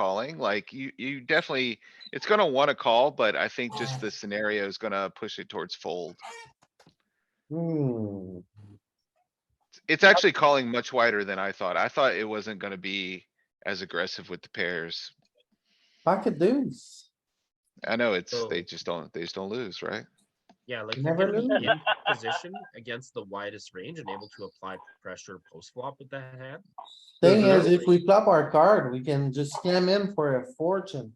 calling, like you, you definitely, it's gonna wanna call, but I think just the scenario is gonna push it towards fold. Hmm, It's actually calling much wider than I thought. I thought it wasn't gonna be as aggressive with the pairs. pocket deuce. I know it's, they Oh. just don't, they just don't lose, right? Yeah, like You you're never gonna be know. in position against the widest range and able to apply pressure post flop with that hand. Thing is, if Definitely. we flop our card, we can just scam in for a fortune.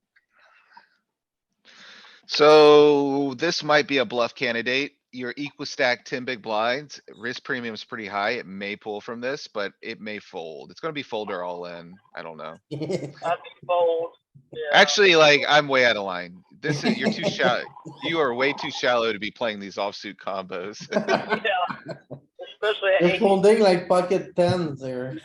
So this might be a bluff candidate. Your equal stack ten big blinds, risk premium is pretty high. It may pull from this, but it may fold. It's gonna be fold or all in. I don't know. I'd be bold. yeah. Actually, like, I'm way out of line. This is, you're too shallow. You are way too shallow to be playing these offsuit combos. Yeah. Especially at It's 18. folding like pocket tens there.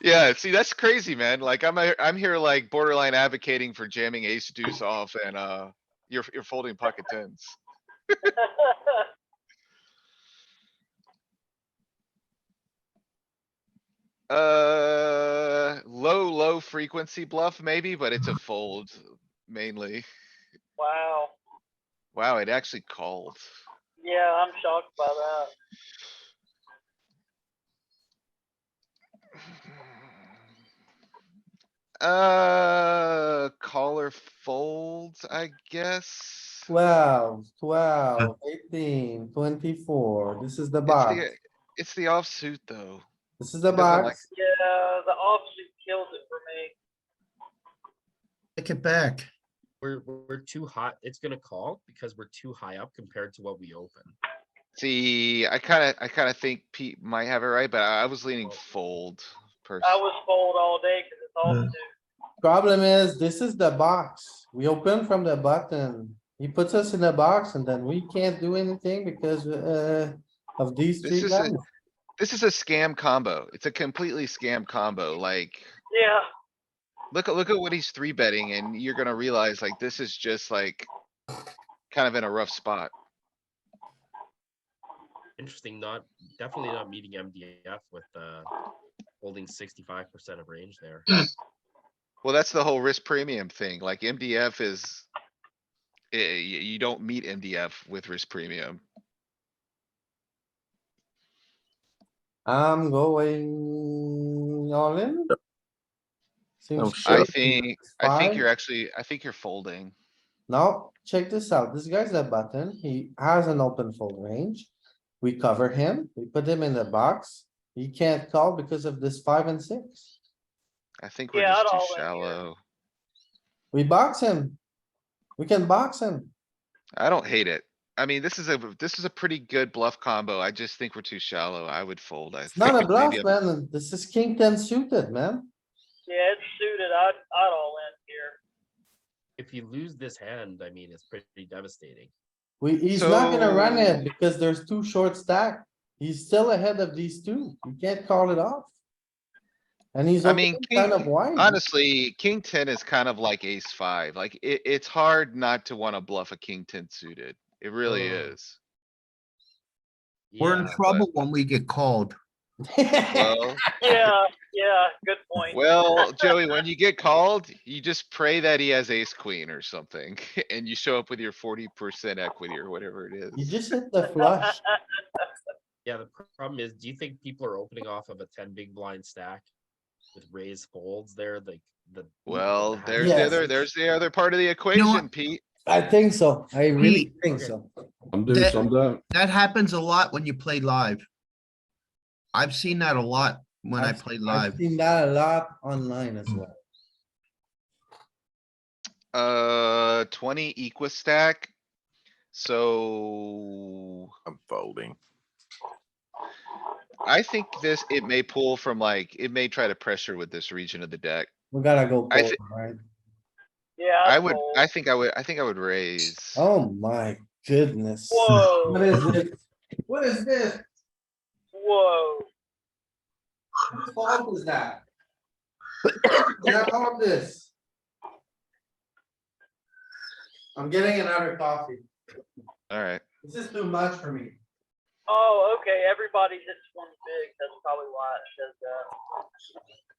Yeah, see, that's crazy, man. Like, I'm, a- I'm here like borderline advocating for jamming ace deuce off and, uh, you're, you're folding pocket tens. Uh, low, low frequency bluff maybe, but it's a fold mainly. Wow. Wow, it actually called. Yeah, I'm shocked by that. Uh, caller folds, I guess. Twelve, twelve, eighteen, twenty-four. This is the It's box. the, it's the offsuit, though. This is the doesn't like- box. Yeah, the offsuit kills it for me. Take it back. We're we're too hot. It's gonna call because we're too high up compared to what we open. See, I kinda, I kinda think Pete might have it right, but I I was leaning Fold. fold. pers- I was bold all day because it's offsuit. Problem is, this is the box. We open from the button. He puts us in the box and then we can't do anything because, uh, of these This three is a- guys. This is a scam combo. It's a completely scam combo, like. Yeah, Look at, look at what he's three betting and you're gonna realize like this is just like. Kind of in a rough spot. Interesting, not definitely not meeting MDF with uh holding sixty five percent of range there. Well, that's the whole risk premium thing. Like MDF is. eh, y- you, don't meet MDF with risk premium. I'm going all in. Seems shit. I Sure. think, I think Five. you're actually, I think you're folding. Now, check this out. This guy's a button. He has an open fold range. We cover him, we put him in the box. He can't call because of this five and six. I think we're Yeah, I'd just all too in here. shallow. We box him. We can box him. I don't hate it. I mean, this is a, this is a pretty good bluff combo. I just think we're too shallow. I would fold. I It's not a think. bluff, Maybe a- man. This is king ten suited, man. yeah, it's suited. I'd, I'd all in here. If you lose this hand, I mean it's pretty devastating. We, he's not gonna run So- it because there's two short stack. He's still ahead of these two. You can't call it off. And he's I opening mean, kind king- of wide. Honestly, king ten is kind of like ace five, like it, it's hard not to wanna bluff a king ten suited. It really Mm. is. We're in Yeah, trouble when we get called. Well, Yeah, yeah, good point. well, Joey, when you get called, you just pray that he has ace queen or something, and you show up with your forty percent equity or whatever it You is. just hit the flush. Yeah, the pr- problem is, do you think people are opening off of a ten big blind stack with raised folds there, like the? Well, half there's the Yes. other, there's the other part of the know what? equation, Pete. I think so. I really Pete. think Okay. so. Some do, That- some don't. That happens a lot when you play live. I've seen that a lot when I I've- play I've live. seen that a lot online as well. Uh, twenty equa stack. So I'm folding. I think this, it may pull from like, it may try to pressure with this region of the deck. We gotta go I polar, thi- right? Yeah, I'd I would, fold. I think I would, I think I would raise. Oh my goodness. What Whoa, is this? What is this? whoa. Whose fault is that? Get out of this. I'm getting another coffee. Alright, This is too much for me. Oh, okay, everybody hits one big. That's probably why it says that.